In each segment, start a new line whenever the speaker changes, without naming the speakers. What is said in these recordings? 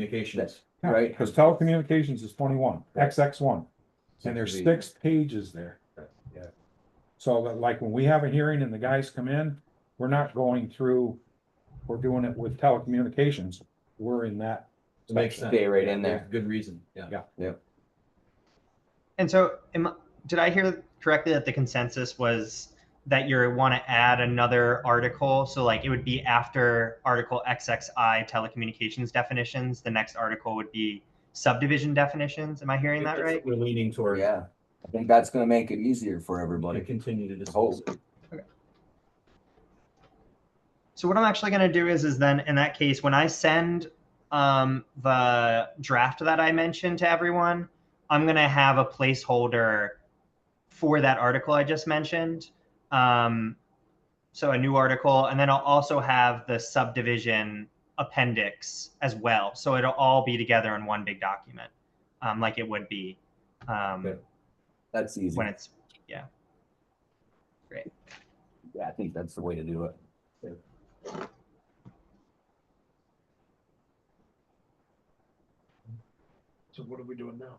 communications.
Yeah,
Right.
Cause telecommunications is twenty-one, XX one, and there's six pages there.
Yeah.
So that like when we have a hearing and the guys come in, we're not going through, we're doing it with telecommunications, we're in that.
Makes sense.
section.
Stay right in there.
Good reason, yeah.
Yeah.
And so, am, did I hear correctly that the consensus was that you want to add another article? So, like, it would be after Article XXI telecommunications definitions. The next article would be subdivision definitions. Am I hearing that right?
We're leaning toward,
Yeah, I think that's gonna make it easier for
to
everybody.
continue to dispose.
So what I'm actually going to do is, is then in that case, when I send um, the draft that I mentioned to everyone, I'm going to have a placeholder for that article I just mentioned. Um, so a new article, and then I'll also have the subdivision appendix as well. So it'll all be together in one big document, um, like it would be um,
Good.
That's easy.
when it's
Yeah, I think that's the way to do it.
So what are we doing now?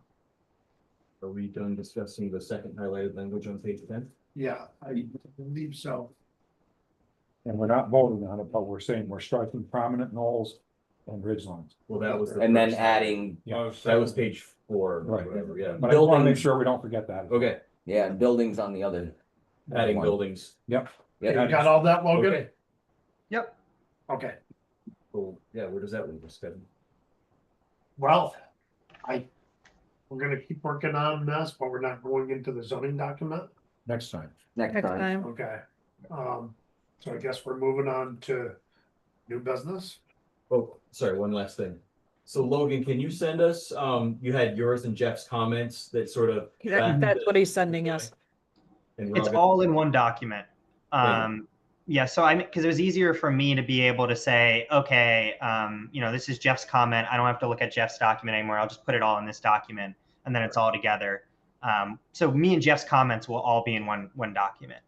Are we done discussing the second highlighted language on page ten?
Yeah, I believe so.
And we're not voting on it, but we're saying we're striking prominent knolls and ridge lines.
Well, that was. the
And then
first-
adding,
Yeah.
That was page four, or
Right.
whatever, yeah.
But I wanna make
buildings.
sure we don't forget that.
Okay,
yeah, buildings on the other.
adding
one.
buildings.
Yep,
You
Yeah,
got all that, Logan?
Okay.
yep.
Okay,
Cool, yeah, where does that leave us, Kevin?
well, I, we're gonna keep working on this, but we're not going into the zoning document.
next time.
next
Next
time.
time.
Okay, um, so I guess we're moving on to new business.
Oh, sorry, one last thing. So Logan, can you send us, um, you had yours and Jeff's comments that sort of.
That- That's what he's sending us.
and we're
It's
gonna-
all in one document.
Yeah.
Um, yeah, so I, because it was easier for me to be able to say, okay, um, you know, this is Jeff's comment. I don't have to look at Jeff's document anymore. I'll just put it all in this document and then it's all together. Um, so me and Jeff's comments will all be in one, one document.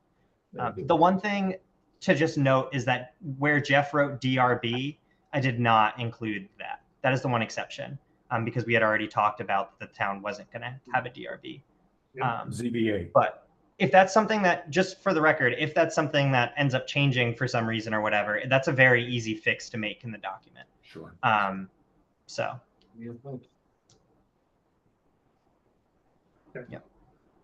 Uh, the one thing to just note is that where Jeff wrote DRB, I did not include that. That is the one exception, um, because we had already talked about that the town wasn't going to have a DRB.
Yeah.
Um,
ZBA,
but if that's something that, just for the record, if that's something that ends up changing for some reason or whatever, that's a very easy fix to make in the document.
Sure.
Um, so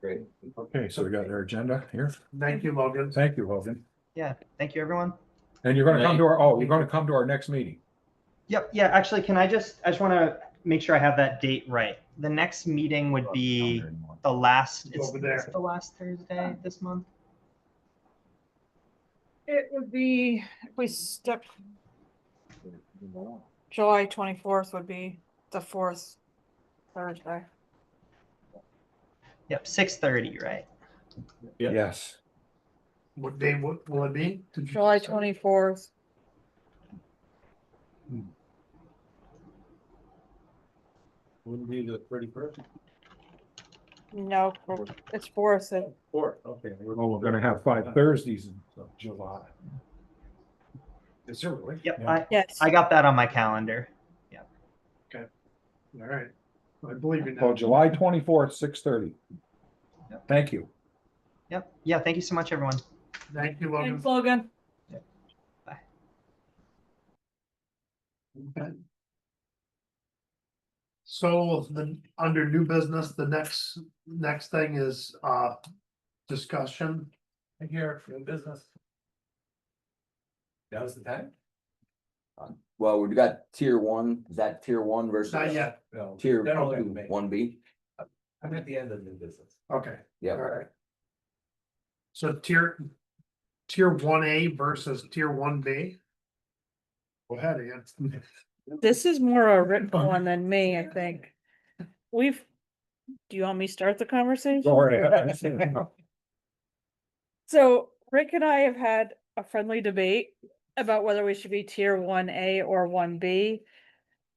Great.
okay, so we got our agenda here.
Thank you, Logan.
Thank you, Logan.
yeah, thank you everyone.
And you're gonna come to our, oh, you're gonna come to our next meeting.
Yep. Yeah. Actually, can I just, I just want to make sure I have that date right. The next meeting would be the last, it's,
Over there.
it's the last Thursday this month.
It would be, if we stuck, July twenty-fourth would be the fourth Thursday.
Yep. 630, right?
Yeah.
Yes.
What day will, will it be? Did you-
July twenty-fourth.
Wouldn't be the pretty person.
No, for- it's fourth. uh,
Four, okay.
Well, we're gonna have five Thursdays in July.
Is there really?
Yep.
Yeah.
I,
Yes.
I got that on my calendar.
All right, I believe in
Well,
that.
July twenty-fourth, six thirty.
Yep.
Thank you.
Yep. Yeah. Thank you so much, everyone.
Thank you, Logan.
Thanks, Logan.
Okay. So the, under new business, the next, next thing is, uh, discussion. Here, new business.
That was the time?
Well, we've got tier one, is that tier one versus?
Not yet,
No.
Tier
That'll be
two, one B,
I'm at the end of the business.
okay.
yeah.
Alright. So tier, tier one A versus tier one B. Go ahead, Ian.
This is more a written one than me, I think. We've, do you want me to start the conversation?
Sorry.
So Rick and I have had a friendly debate about whether we should be tier one A or one B.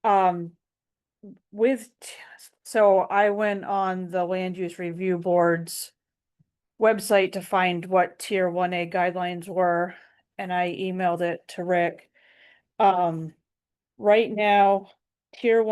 Um, with, t- so I went on the land use review board's website to find what tier one A guidelines were, and I emailed it to Rick. Um, right now, tier